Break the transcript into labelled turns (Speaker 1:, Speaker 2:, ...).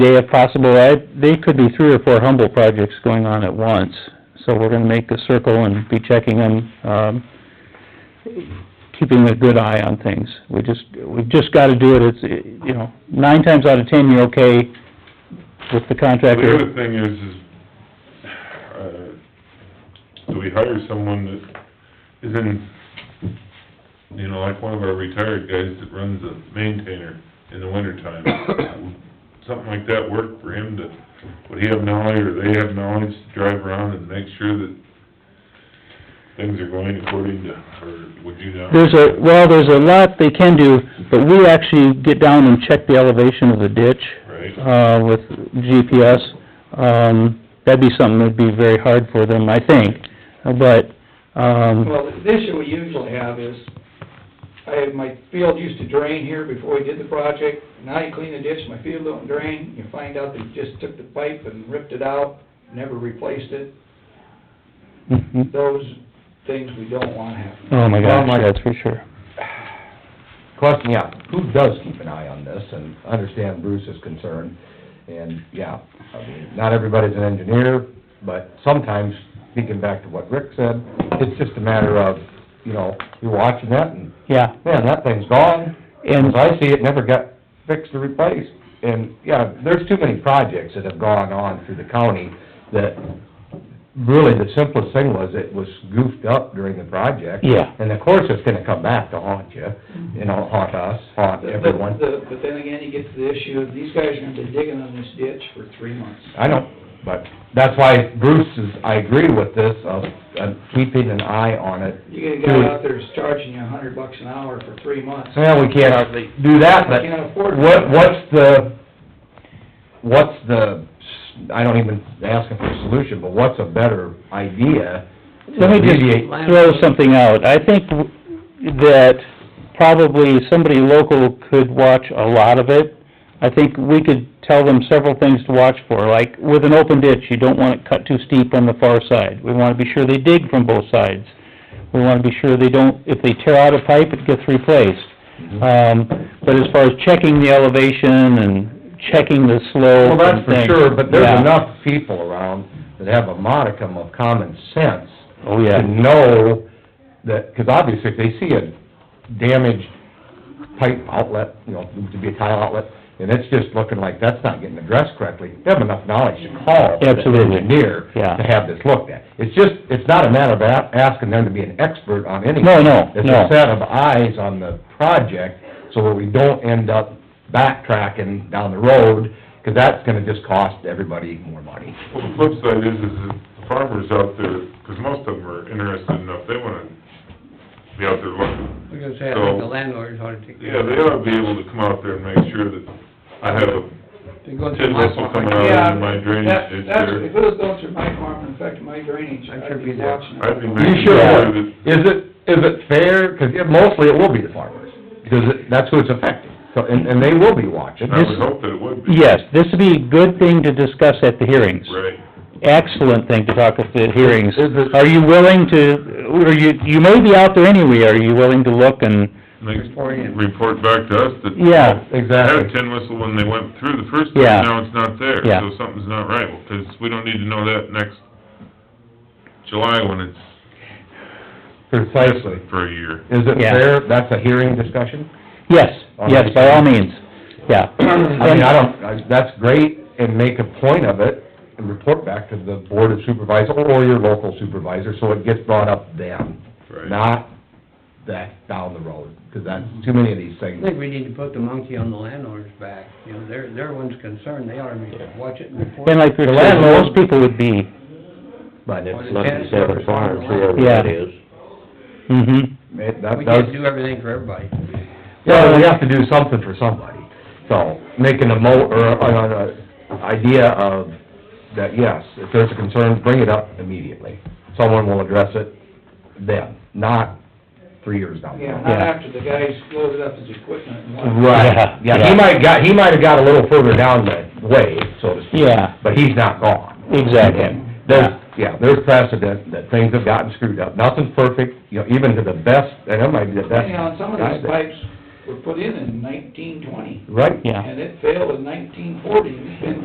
Speaker 1: day if possible. I, they could be three or four Humble projects going on at once, so we're gonna make a circle and be checking them, um, keeping a good eye on things. We just, we've just gotta do it, it's, you know, nine times out of ten, you're okay with the
Speaker 2: The other
Speaker 1: contractor.
Speaker 2: thing is, is, uh, do we hire someone that is in, you know, like one of our retired guys that runs a maintainer in the wintertime? Something like that work for him to, would he have knowledge or they have knowledge to drive around and make sure that things are going according to, or would you not?
Speaker 1: There's a, well, there's a lot they can do, but we actually get down and check the elevation of the ditch.
Speaker 2: Right.
Speaker 1: uh, with GPS, um, that'd be something that'd be very hard for them, I think, but, um,
Speaker 3: Well, the issue we usually have is, I, my field used to drain here before we did the project. Now you clean the ditch, my field don't drain. You find out they just took the pipe and ripped it out, never replaced it.
Speaker 1: mhm.
Speaker 3: Those things we don't want happen.
Speaker 1: oh my gosh, that's for sure.
Speaker 4: Question, yeah, who does keep an eye on this, and I understand Bruce's concern, and, yeah, I mean, not everybody's an engineer, but sometimes, speaking back to what Rick said, it's just a matter of, you know, you're watching that, and,
Speaker 1: Yeah,
Speaker 4: man, that thing's gone,
Speaker 1: and,
Speaker 4: as I see it, never got fixed or replaced, and, yeah, there's too many projects that have gone on through the county that, really, the simplest thing was, it was goofed up during the project.
Speaker 1: yeah,
Speaker 4: And of course, it's gonna come back to haunt you, you know, haunt us, haunt everyone.
Speaker 3: The- But then again, you get to the issue, of these guys are gonna be digging on this ditch for three months.
Speaker 4: I know, but that's why Bruce is, I agree with this, of, of keeping an eye on it.
Speaker 3: You get a guy out there that's charging you a hundred bucks an hour for three months.
Speaker 4: Well, we can't do that, but
Speaker 3: I can't afford it.
Speaker 4: what, what's the, what's the, I don't even asking for a solution, but what's a better idea?
Speaker 1: let me
Speaker 4: Alleviate.
Speaker 1: just throw something out, I think w- that probably somebody local could watch a lot of it. I think we could tell them several things to watch for, like with an open ditch, you don't want it cut too steep on the far side. We wanna be sure they dig from both sides. We wanna be sure they don't, if they tear out a pipe, it gets replaced.
Speaker 4: Mm-hmm.
Speaker 1: Um, but as far as checking the elevation and checking the slope
Speaker 4: Well, that's
Speaker 1: and
Speaker 4: for
Speaker 1: things.
Speaker 4: sure, but there's
Speaker 1: yeah.
Speaker 4: enough people around that have a modicum of common sense
Speaker 1: Oh,
Speaker 4: to
Speaker 1: yeah,
Speaker 4: know that, because obviously if they see a damaged pipe outlet, you know, to be a tile outlet, and it's just looking like that's not getting addressed correctly, they have enough knowledge to call the
Speaker 1: Absolutely.
Speaker 4: engineer
Speaker 1: Yeah.
Speaker 4: to have this looked at. It's just, it's not a matter of a- asking them to be an expert on anything.
Speaker 1: No, no,
Speaker 4: It's
Speaker 1: no.
Speaker 4: a set of eyes on the project, so that we don't end up backtracking down the road, because that's gonna just cost everybody more money.
Speaker 2: Well, the flip side is, is that the farmers out there, because most of them are interested enough, they wanna be out there looking.
Speaker 5: I was gonna say, I
Speaker 2: So-
Speaker 5: think the landlords ought to take. care
Speaker 2: Yeah,
Speaker 5: of
Speaker 2: they
Speaker 5: it.
Speaker 2: ought to be able to come out there and make sure that I have a
Speaker 5: They're going through
Speaker 2: tin
Speaker 5: my
Speaker 2: whistle
Speaker 5: farm.
Speaker 2: coming
Speaker 3: Yeah,
Speaker 2: out of Oh, my drainage
Speaker 3: that-
Speaker 2: ditch
Speaker 3: that's- If
Speaker 2: there.
Speaker 3: it was going through my farm and affecting my drainage,
Speaker 5: I'd
Speaker 3: I'd
Speaker 5: sure
Speaker 3: be
Speaker 5: be there.
Speaker 3: watching. it.
Speaker 2: I'd be
Speaker 4: You
Speaker 2: making
Speaker 4: sure
Speaker 2: sure
Speaker 4: would.
Speaker 2: that,
Speaker 4: Is it, is it fair, because mostly it will be the farmers, because it- that's who it's affecting, so, and, and they will be watching.
Speaker 2: I would hope that it would be.
Speaker 1: yes, this would be a good thing to discuss at the hearings.
Speaker 2: Right.
Speaker 1: excellent thing to talk at the hearings.
Speaker 4: Is it-
Speaker 1: Are you willing to, or you, you may be out there anyway, are you willing to look and,
Speaker 2: Make-
Speaker 5: Report in.
Speaker 2: report back to us that.
Speaker 1: Yeah,
Speaker 2: I had
Speaker 4: Exactly.
Speaker 2: a tin whistle when they went through the first
Speaker 1: Yeah.
Speaker 2: time, now it's not there.
Speaker 1: Yeah.
Speaker 2: So something's not right, because we don't need to know that next July when it's
Speaker 4: Precisely.
Speaker 2: for a year.
Speaker 4: Is it
Speaker 1: Yeah.
Speaker 4: fair, that's a hearing discussion?
Speaker 1: yes,
Speaker 4: On
Speaker 1: yes,
Speaker 4: these
Speaker 1: by all
Speaker 4: things?
Speaker 1: means, yeah.
Speaker 4: I mean, I don't, I- that's great, and make a point of it, and report back to the board of supervisors, or your local supervisor, so it gets brought up then,
Speaker 2: Right.
Speaker 4: not that down the road, because that's, too many of these
Speaker 5: I
Speaker 4: things.
Speaker 5: think we need to put the monkey on the landlord's back, you know, they're, they're ones concerned, they ought to be- watch it and report.
Speaker 1: And like,
Speaker 4: The
Speaker 1: most
Speaker 4: landlord-
Speaker 1: people would be,
Speaker 4: But it's,
Speaker 5: Well, it depends on the farm, whoever
Speaker 1: that Yeah. mhm,
Speaker 4: it- that
Speaker 5: We
Speaker 4: does
Speaker 5: can't do everything for everybody.
Speaker 4: Yeah, we have to do something for somebody, so, making a mo, or, uh, uh, idea of, that, yes, if there's a concern, bring it up immediately. Someone will address it then, not three years down the
Speaker 3: Yeah,
Speaker 4: road.
Speaker 3: not
Speaker 1: Yeah.
Speaker 3: after the guy's loaded up his equipment and left.
Speaker 4: Right, yeah,
Speaker 1: Yeah.
Speaker 4: he might got, he might have got a little further down the way, so to speak.
Speaker 1: Yeah.
Speaker 4: But he's not gone.
Speaker 1: exactly.
Speaker 4: There's, yeah, there's precedent that things have gotten screwed up, nothing's perfect, you know, even to the best, and it might be the best.
Speaker 3: You know, and some of these
Speaker 4: guy Mm-hmm. that-
Speaker 3: pipes were put in in nineteen twenty,
Speaker 4: right?
Speaker 1: yeah.
Speaker 3: and it failed in nineteen forty, and it's been